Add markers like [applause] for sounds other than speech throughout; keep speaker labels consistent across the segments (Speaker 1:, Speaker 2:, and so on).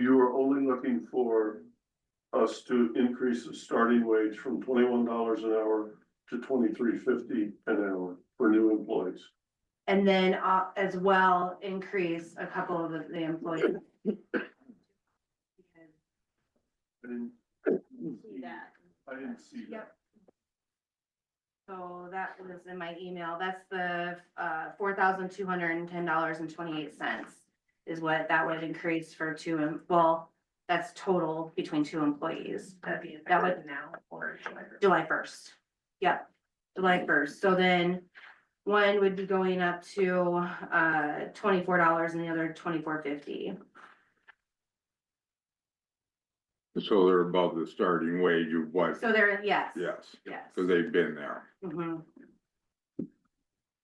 Speaker 1: we're only looking for us to increase the starting wage from twenty-one dollars an hour to twenty-three fifty an hour for new employees.
Speaker 2: And then uh as well, increase a couple of the- the employees.
Speaker 1: I didn't.
Speaker 2: See that.
Speaker 1: I didn't see that.
Speaker 2: Yep. So that was in my email. That's the uh four thousand two hundred and ten dollars and twenty-eight cents. Is what that would increase for two, em- well, that's total between two employees. That'd be, that would now
Speaker 3: or
Speaker 2: July first. Yep, July first. So then one would be going up to uh twenty-four dollars and the other twenty-four fifty.
Speaker 4: So they're above the starting wage of what,
Speaker 2: So there, yes.
Speaker 4: yes,
Speaker 2: Yes.
Speaker 4: so they've been there.
Speaker 2: Mhm.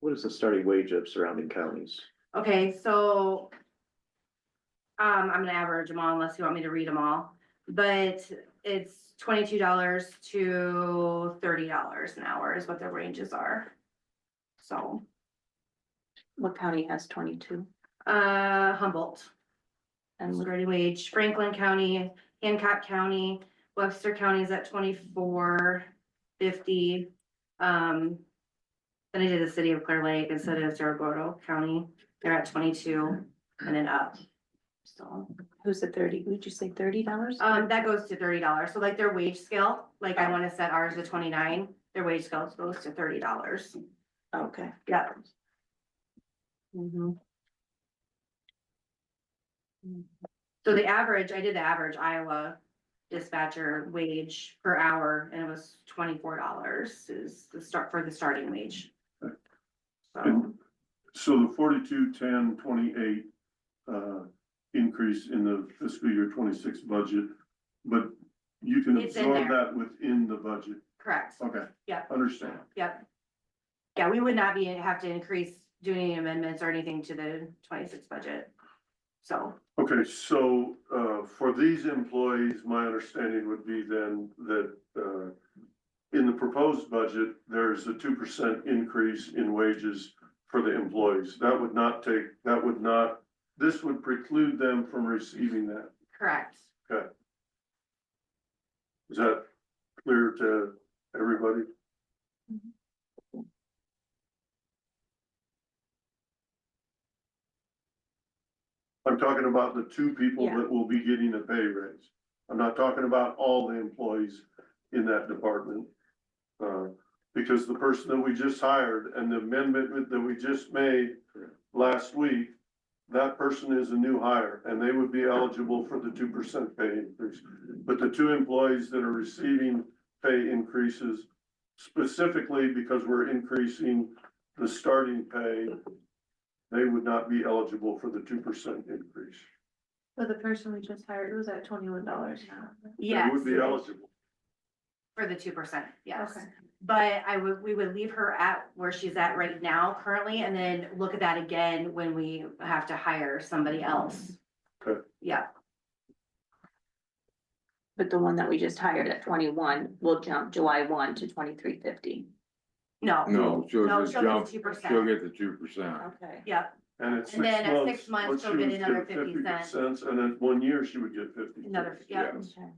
Speaker 5: What is the starting wage of surrounding counties?
Speaker 2: Okay, so. Um, I'm gonna average them all unless you want me to read them all, but it's twenty-two dollars to thirty dollars an hour is what the ranges are. So,
Speaker 3: What county has twenty-two?
Speaker 2: uh, Humboldt,
Speaker 3: And
Speaker 2: starting wage, Franklin County, Hancock County, Webster County is at twenty-four fifty. Um, then I did the city of Clear Lake instead of Zerogordo County, they're at twenty-two and then up, so.
Speaker 3: who's the thirty, would you say thirty dollars?
Speaker 2: Um, that goes to thirty dollars, so like their wage scale, like I wanna set ours to twenty-nine, their wage scale goes to thirty dollars,
Speaker 3: Oh, Okay.
Speaker 2: yeah.
Speaker 3: mm-hmm.
Speaker 2: So the average, I did the average Iowa dispatcher wage per hour, and it was twenty-four dollars is the start, for the starting wage. So,
Speaker 1: And so the forty-two, ten, twenty-eight, uh, increase in the fiscal year twenty-six budget, but you can
Speaker 2: It's in
Speaker 1: absorb
Speaker 2: there.
Speaker 1: that within the budget.
Speaker 2: correct,
Speaker 1: Okay.
Speaker 2: Yeah.
Speaker 1: Understand.
Speaker 2: yep. Yeah, we would not be, have to increase, do any amendments or anything to the twenty-six budget, so.
Speaker 1: Okay, so, uh, for these employees, my understanding would be then that, uh, in the proposed budget, there's a two percent increase in wages for the employees. That would not take, that would not, this would preclude them from receiving that.
Speaker 2: Correct.
Speaker 1: Is that clear to everybody? I'm talking about the two people
Speaker 3: Yeah.
Speaker 1: that will be getting a pay raise. I'm not talking about all the employees in that department. Uh, because the person that we just hired and the amendment that we just made last week, that person is a new hire and they would be eligible for the two percent pay increase. But the two employees that are receiving pay increases specifically because we're increasing the starting pay, they would not be eligible for the two percent increase.
Speaker 3: So the person we just hired was at twenty-one dollars now.
Speaker 1: They
Speaker 2: Yes,
Speaker 1: would be eligible.
Speaker 2: for the two percent, yes. But I would, we would leave her at where she's at right now currently and then look at that again when we have to hire somebody else.
Speaker 1: Okay.
Speaker 2: Yeah,
Speaker 3: But the one that we just hired at twenty-one will jump July one to twenty-three fifty.
Speaker 2: no.
Speaker 4: No, she'll
Speaker 2: No,
Speaker 4: just
Speaker 2: she'll get
Speaker 4: jump,
Speaker 2: two
Speaker 4: she'll
Speaker 2: percent,
Speaker 4: get the two percent.
Speaker 3: Okay.
Speaker 2: yeah,
Speaker 1: And at
Speaker 2: And then at six
Speaker 1: six
Speaker 2: months,
Speaker 1: months,
Speaker 2: she'll
Speaker 1: once she
Speaker 2: get
Speaker 1: would
Speaker 2: another
Speaker 1: get
Speaker 2: 50
Speaker 1: fifty cents, and at one year, she would get fifty.
Speaker 2: another,
Speaker 1: cents.
Speaker 2: yeah.
Speaker 4: Yes.
Speaker 3: Okay.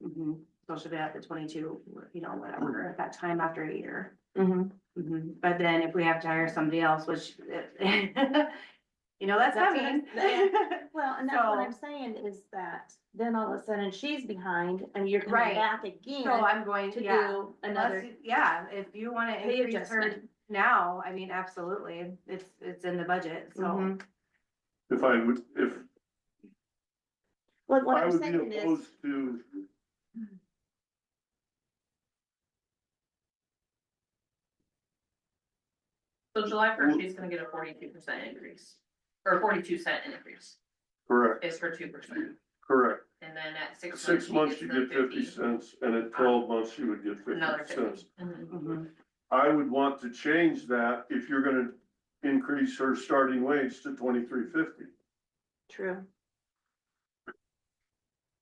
Speaker 1: Yeah,
Speaker 3: Mm-hmm.
Speaker 2: mhm. So she'll be at the twenty-two, you know, whatever, at that time after a year.
Speaker 3: Mhm.
Speaker 2: Mhm. But then if we have to hire somebody else, which, [laughs] you know, that's
Speaker 3: That's what
Speaker 2: coming.
Speaker 3: I'm- Well, and that's what
Speaker 2: So-
Speaker 3: I'm saying is that then all of a sudden she's behind and you're
Speaker 2: Right.
Speaker 3: coming back
Speaker 2: [laughs] So
Speaker 3: again
Speaker 2: I'm going,
Speaker 3: to
Speaker 2: yeah.
Speaker 3: do
Speaker 2: Unless
Speaker 3: another
Speaker 2: you- Yeah, if you wanna
Speaker 3: pay
Speaker 2: increase her
Speaker 3: adjustment.
Speaker 2: now, I mean, absolutely, it's, it's in the budget, so.
Speaker 3: Mhm.
Speaker 1: if I would, if
Speaker 3: What, what
Speaker 1: I
Speaker 3: I'm
Speaker 1: would be
Speaker 3: saying is,
Speaker 1: opposed to.
Speaker 6: So July first,
Speaker 1: Well-
Speaker 6: she's gonna get a forty-two percent increase, or forty-two cent increase,
Speaker 1: Correct,
Speaker 6: is her two percent,
Speaker 1: correct.
Speaker 6: and then at six.
Speaker 1: Six months, you
Speaker 6: she gets
Speaker 1: get
Speaker 6: the
Speaker 1: fifty cents, and at twelve months, you would get
Speaker 6: Another
Speaker 1: fifty cents.
Speaker 6: fifty. Mhm.
Speaker 3: Mm-hmm.
Speaker 2: Mhm.
Speaker 1: I would want to change that if you're gonna increase her starting wage to twenty-three fifty.
Speaker 3: true,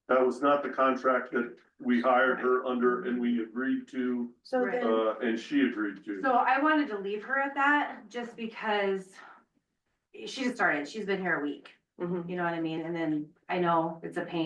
Speaker 1: That was not the contract that we hired her under and we agreed to,
Speaker 3: so
Speaker 2: Right.
Speaker 3: then,
Speaker 1: uh, and she agreed to.
Speaker 2: So I wanted to leave her at that, just because she just started, she's been here a week,
Speaker 3: Mhm.
Speaker 2: you know what I mean, and then I know it's a pain